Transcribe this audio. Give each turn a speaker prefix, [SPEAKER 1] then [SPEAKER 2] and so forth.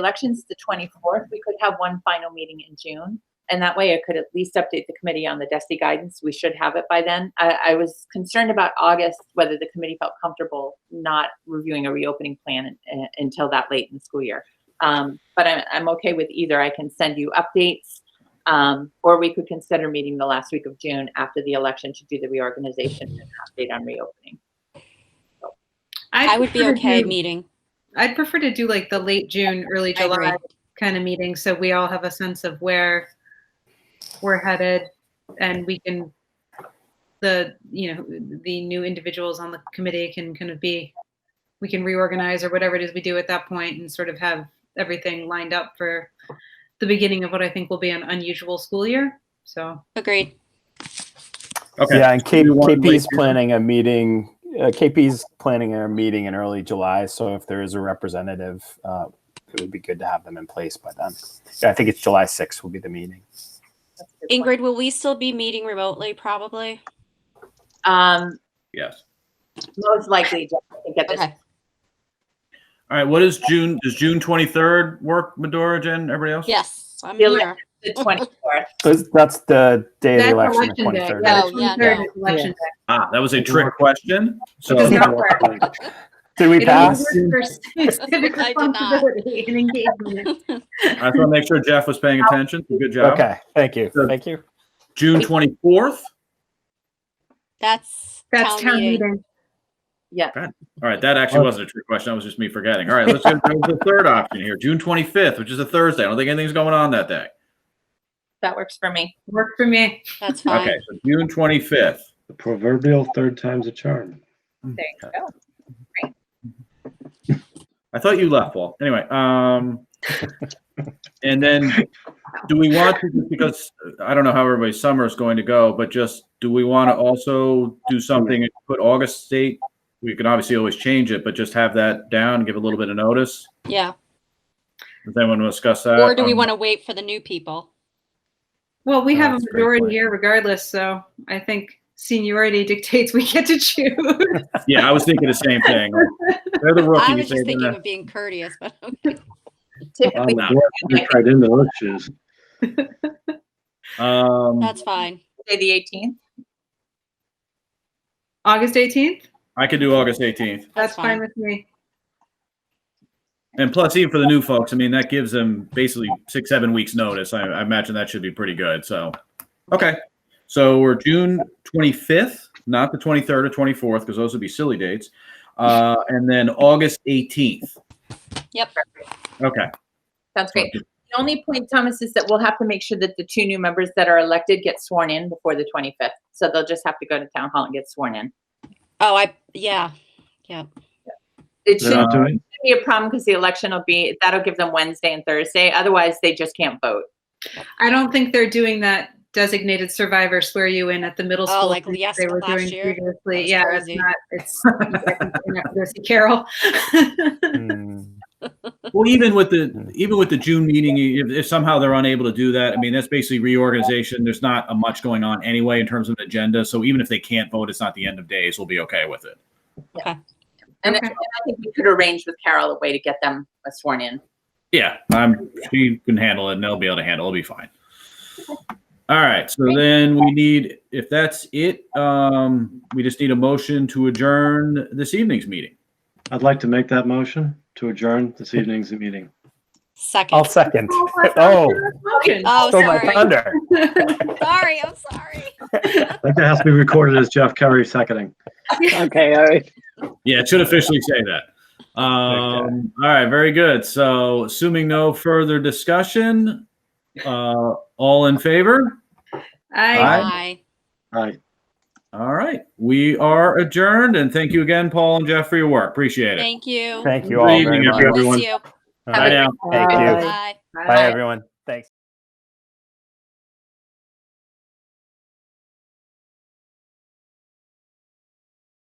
[SPEAKER 1] election's the 24th, we could have one final meeting in June. And that way I could at least update the committee on the DESI guidance. We should have it by then. I, I was concerned about August, whether the committee felt comfortable not reviewing a reopening plan uh, until that late in the school year. Um, but I'm, I'm okay with either. I can send you updates. Um, or we could consider meeting the last week of June after the election to do the reorganization and update on reopening.
[SPEAKER 2] I would be
[SPEAKER 3] prefer to
[SPEAKER 2] okay
[SPEAKER 3] do-
[SPEAKER 2] meeting.
[SPEAKER 3] I'd prefer to do like the late June, early
[SPEAKER 2] I agree.
[SPEAKER 3] July kind of meeting, so we all have a sense of where we're headed and we can, the, you know, the new individuals on the committee can kind of be, we can reorganize or whatever it is we do at that point and sort of have everything lined up for the beginning of what I think will be an unusual school year, so.
[SPEAKER 2] Agreed.
[SPEAKER 4] Okay.
[SPEAKER 5] Yeah, and K-
[SPEAKER 4] you want to
[SPEAKER 5] KP's
[SPEAKER 4] wait-
[SPEAKER 5] planning a meeting, uh, KP's planning a meeting in early July, so if there is a representative, uh, it would be good to have them in place by then. Yeah, I think it's July sixth will be the meeting.
[SPEAKER 1] That's a good point.
[SPEAKER 2] Ingrid, will we still be meeting remotely? Probably.
[SPEAKER 1] Um,
[SPEAKER 4] Yes.
[SPEAKER 1] most likely, Jeff, I think at this
[SPEAKER 2] Okay.
[SPEAKER 4] All right. What is June? Does June 23rd work, Medora, Jen, everybody else?
[SPEAKER 2] Yes, I'm
[SPEAKER 1] Feel
[SPEAKER 2] here.
[SPEAKER 1] the 24th.
[SPEAKER 5] That's- That's the day of
[SPEAKER 3] That's
[SPEAKER 5] the election, the
[SPEAKER 3] election day.
[SPEAKER 5] twenty-third.
[SPEAKER 3] Yeah,
[SPEAKER 2] Oh,
[SPEAKER 3] the
[SPEAKER 2] yeah,
[SPEAKER 3] 23rd
[SPEAKER 2] no.
[SPEAKER 3] is election day.
[SPEAKER 4] Ah, that was a trick question. So
[SPEAKER 3] Does not
[SPEAKER 5] Did we
[SPEAKER 3] It only
[SPEAKER 5] pass?
[SPEAKER 3] works for civic
[SPEAKER 2] I did not.
[SPEAKER 3] responsibility and engagement.
[SPEAKER 4] I just want to make sure Jeff was paying attention. So Good job.
[SPEAKER 5] Okay, thank you,
[SPEAKER 4] So-
[SPEAKER 5] thank you.
[SPEAKER 4] June 24th.
[SPEAKER 2] That's
[SPEAKER 3] That's town meeting.
[SPEAKER 1] Yeah.
[SPEAKER 4] All right. That actually wasn't a trick question. That was just me forgetting. All right. Let's go to the third option here. June 25th, which is a Thursday. I don't think anything's going on that day.
[SPEAKER 1] That works for me.
[SPEAKER 3] Work for me.
[SPEAKER 2] That's fine.
[SPEAKER 4] Okay. So June 25th.
[SPEAKER 6] The proverbial third time's a charm.
[SPEAKER 1] There you go.
[SPEAKER 4] I thought you left, Paul. Anyway, um, and then do we want to, because I don't know how everybody's summer is going to go, but just do we want to also do something and put August date? We can obviously always change it, but just have that down, give a little bit of notice.
[SPEAKER 2] Yeah.
[SPEAKER 4] Does anyone want to discuss that?
[SPEAKER 2] Or do we
[SPEAKER 4] Um,
[SPEAKER 2] want to wait for the new people?
[SPEAKER 3] Well, we
[SPEAKER 4] Oh,
[SPEAKER 3] have a
[SPEAKER 4] that's a great
[SPEAKER 3] majority
[SPEAKER 4] point.
[SPEAKER 3] here regardless, so I think seniority dictates we get to choose.
[SPEAKER 4] Yeah, I was thinking the same thing. They're the uh,
[SPEAKER 2] I was
[SPEAKER 4] rookies. They're
[SPEAKER 2] just thinking
[SPEAKER 4] gonna-
[SPEAKER 2] of being courteous, but okay.
[SPEAKER 1] Typically,
[SPEAKER 4] no.
[SPEAKER 6] Right into those shoes.
[SPEAKER 4] Um,
[SPEAKER 2] that's fine.
[SPEAKER 1] say the 18th.
[SPEAKER 3] August 18th?
[SPEAKER 4] I could do August 18th.
[SPEAKER 3] That's
[SPEAKER 2] That's fine.
[SPEAKER 3] fine with me.
[SPEAKER 4] And plus, even for the new folks, I mean, that gives them basically six, seven weeks notice. I, I imagine that should be pretty good. So, okay. So we're June 25th, not the 23rd or 24th, because those would be silly dates. Uh, and then August 18th.
[SPEAKER 2] Yep.
[SPEAKER 4] Okay.
[SPEAKER 1] Sounds great. The only point, Thomas, is that we'll have to make sure that the two new members that are elected get sworn in before the 25th. So they'll just have to go to town hall and get sworn in.
[SPEAKER 2] Oh, I, yeah.
[SPEAKER 1] It
[SPEAKER 6] They're
[SPEAKER 1] shouldn't
[SPEAKER 6] not doing-
[SPEAKER 1] be a problem because the election will be, that'll give them Wednesday and Thursday. Otherwise, they just can't vote.
[SPEAKER 3] I don't think they're doing that designated survivor swear you in at the middle
[SPEAKER 2] Oh,
[SPEAKER 3] school.
[SPEAKER 2] like
[SPEAKER 3] thing that
[SPEAKER 2] yes,
[SPEAKER 3] They were
[SPEAKER 2] last
[SPEAKER 3] doing
[SPEAKER 2] year?
[SPEAKER 3] previously.
[SPEAKER 2] That's
[SPEAKER 3] Yeah, it's
[SPEAKER 2] crazy.
[SPEAKER 3] not, it's, you have to go see Carol.
[SPEAKER 4] Oh,
[SPEAKER 5] Hmm.
[SPEAKER 4] Well, even with the even with the June meeting, if, if somehow they're unable to do that, I mean, that's basically reorganization. There's not a much going on anyway in terms of an agenda. So even if they can't vote, it's not the end of days. We'll be okay with it.
[SPEAKER 1] And
[SPEAKER 3] Okay.
[SPEAKER 1] and I think we could arrange with Carol a way to get them sworn in.
[SPEAKER 4] Yeah, I'm. She can handle it, and they'll be able to handle. it. It'll be fine. All right. So then we need, if that's it, um, we just need a motion to adjourn this evening's meeting.
[SPEAKER 6] I'd like to make that motion to adjourn this evening's meeting.
[SPEAKER 2] Second.
[SPEAKER 5] I'll second.
[SPEAKER 3] I
[SPEAKER 5] Oh,
[SPEAKER 3] thought you were smoking.
[SPEAKER 2] oh,
[SPEAKER 5] stole my
[SPEAKER 2] sorry.
[SPEAKER 5] thunder.
[SPEAKER 2] Sorry. I'm sorry.
[SPEAKER 6] I think that has to be recorded as Jeff Kerry seconding.
[SPEAKER 7] Okay, all right.
[SPEAKER 4] Yeah, it should officially say that. Um, all right. Very good. So, assuming no further discussion, uh, all in favor?
[SPEAKER 3] I,
[SPEAKER 4] Aye.
[SPEAKER 2] Bye.
[SPEAKER 6] All right.
[SPEAKER 4] All right. We are adjourned, and thank you again, Paul and Jeff, for your work. Appreciate it.
[SPEAKER 2] Thank you.
[SPEAKER 5] Thank you
[SPEAKER 6] Good
[SPEAKER 5] all
[SPEAKER 4] evening,
[SPEAKER 5] very much.
[SPEAKER 2] Miss
[SPEAKER 6] everyone.
[SPEAKER 2] you.
[SPEAKER 5] All
[SPEAKER 4] Bye
[SPEAKER 5] right.
[SPEAKER 4] now.
[SPEAKER 5] Thank you.
[SPEAKER 2] Bye.
[SPEAKER 5] Bye, everyone. Thanks.